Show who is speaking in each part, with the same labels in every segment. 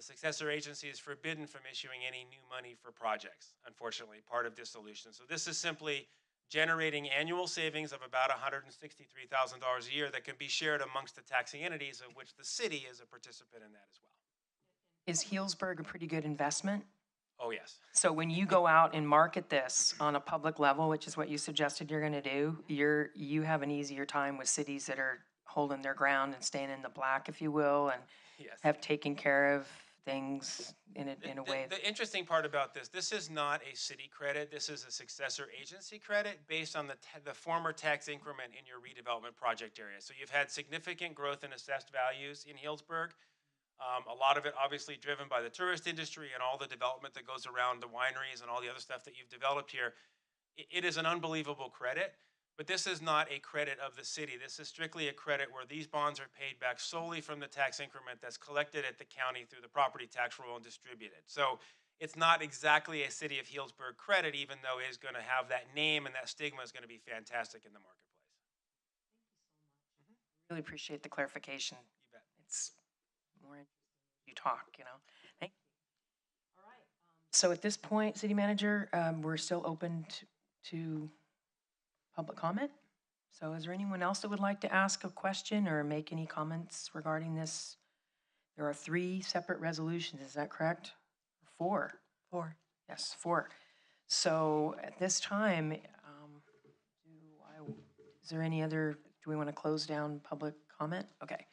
Speaker 1: successor agency is forbidden from issuing any new money for projects, unfortunately, part of dissolution. So this is simply generating annual savings of about $163,000 a year that can be shared amongst the taxing entities, of which the city is a participant in that as well.
Speaker 2: Is Healdsburg a pretty good investment?
Speaker 1: Oh, yes.
Speaker 2: So when you go out and market this on a public level, which is what you suggested you're gonna do, you're, you have an easier time with cities that are holding their ground and staying in the black, if you will, and
Speaker 1: Yes.
Speaker 2: have taken care of things in a,
Speaker 1: The-
Speaker 2: in a
Speaker 1: the-
Speaker 2: way.
Speaker 1: The interesting part about this, this is not a city credit, this is a successor agency credit based on the, ta- the former tax increment in your redevelopment project area. So you've had significant growth in assessed values in Healdsburg. Um, a lot of it obviously driven by the tourist industry and all the development that goes around the wineries and all the other stuff that you've developed here. I- it is an unbelievable credit, but this is not a credit of the city. This is strictly a credit where these bonds are paid back solely from the tax increment that's collected at the county through the property tax roll and distributed. So it's not exactly a city of Healdsburg credit, even though it is going to have that name and that stigma is going to be fantastic in the marketplace.
Speaker 2: Really appreciate the clarification.
Speaker 1: You bet.
Speaker 2: It's more, in- you talk, you know? Thank you. um, So at this point, city manager, um, we're still open t- to public comment? So is there anyone else that would like to ask a question or make any comments regarding this? There are three separate resolutions, is that correct? Four? Four. Yes, four. So at this time, um, do I, is there any other, do we want to close down public comment? Okay.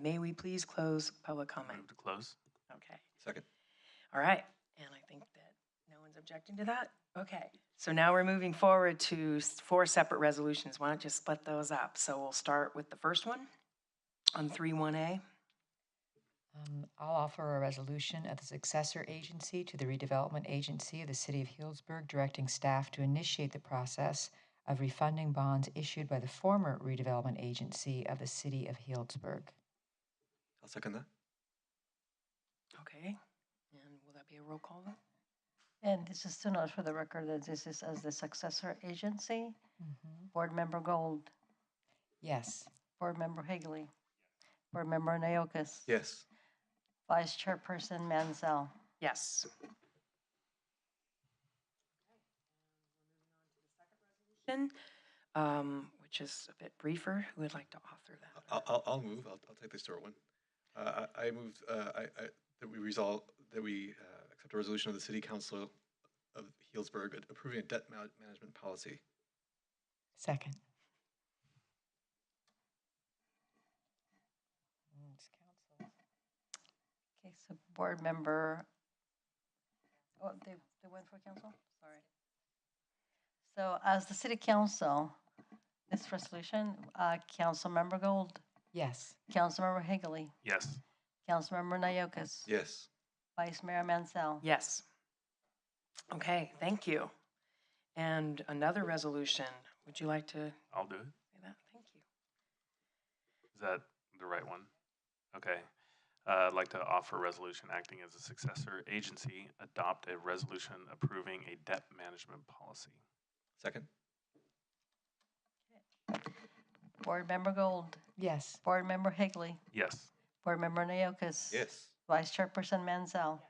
Speaker 2: May we please close public comment?
Speaker 3: Move to close.
Speaker 2: Okay.
Speaker 3: Second.
Speaker 2: All right, and I think that no one's objecting to that? Okay, so now we're moving forward to s- four separate resolutions. Why don't you split those up? So we'll start with the first one on three one A.
Speaker 4: Um, I'll offer a resolution of the successor agency to the redevelopment agency of the City of Healdsburg, directing staff to initiate the process of refunding bonds issued by the former redevelopment agency of the City of Healdsburg.
Speaker 3: I'll second that.
Speaker 2: Okay, and will that be a roll call? vote?
Speaker 5: And this is to note for the record that this is as the successor agency. Board Member Gold,
Speaker 4: Yes.
Speaker 5: Board Member Higley, Board Member Naokis.
Speaker 3: Yes.
Speaker 5: Vice Chairperson Mansell.
Speaker 2: Yes. Then, um, which is a bit briefer, who would like to author that?
Speaker 6: I'll, I'll, I'll move. I'll, I'll take the short one. Uh, I, I moved, uh, I, I, that we resolve, that we, uh, accept a resolution of the city council of Healdsburg a- approving a debt ma- management policy.
Speaker 4: Second.
Speaker 5: Okay, so Board Member, oh, they, they went for council? Sorry. So as the City Council, this resolution, uh, Councilmember Gold,
Speaker 4: Yes.
Speaker 5: Councilmember Higley,
Speaker 3: Yes.
Speaker 5: Councilmember Naokis.
Speaker 6: Yes.
Speaker 5: Vice Mayor Mansell.
Speaker 2: Yes. Okay, thank you. And another resolution, would you like to say
Speaker 3: I'll do it.
Speaker 2: that? Thank you.
Speaker 3: Is that the right one? Okay. Uh, I'd like to offer a resolution acting as a successor agency, adopt a resolution approving a debt management policy.
Speaker 6: Second?
Speaker 5: Board Member Gold,
Speaker 4: Yes.
Speaker 5: Board Member Higley,
Speaker 3: Yes.
Speaker 5: Board Member Naokis.
Speaker 6: Yes.
Speaker 5: Vice Chairperson Mansell.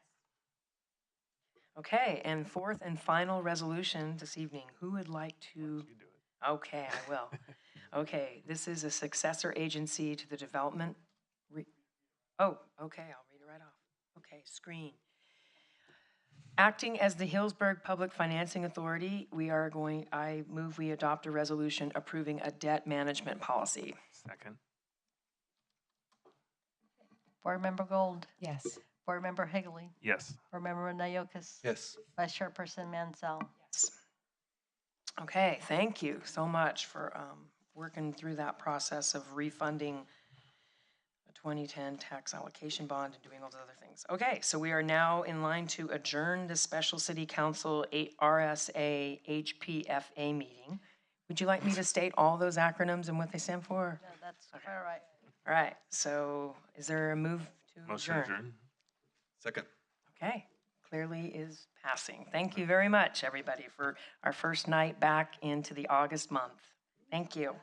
Speaker 2: Okay, and fourth and final resolution this evening, who would like
Speaker 3: You
Speaker 2: to?
Speaker 3: do it.
Speaker 2: Okay, I will. Okay, this is a successor agency to the development. re- Oh, okay, I'll read it right off. Okay, screen. Acting as the Hillsburg Public Financing Authority, we are going, I move we adopt a resolution approving a debt management policy.
Speaker 3: Second.
Speaker 5: Board Member Gold,
Speaker 4: Yes.
Speaker 5: Board Member Higley,
Speaker 3: Yes.
Speaker 5: Board Member Naokis.
Speaker 6: Yes.
Speaker 5: Vice Chairperson Mansell.
Speaker 2: Yes. Okay, thank you so much for um, working through that process of refunding a 2010 tax allocation bond and doing all those other things. Okay, so we are now in line to adjourn the special city council eight RSA HPFA meeting. Would you like me to state all those acronyms and what they stand for?
Speaker 5: No, that's all right.
Speaker 2: All right, so is there a move to
Speaker 3: Motion
Speaker 2: adjourn?
Speaker 3: adjourned.
Speaker 6: Second?
Speaker 2: Okay, clearly is passing. Thank you very much, everybody, for our first night back into the August month. Thank you.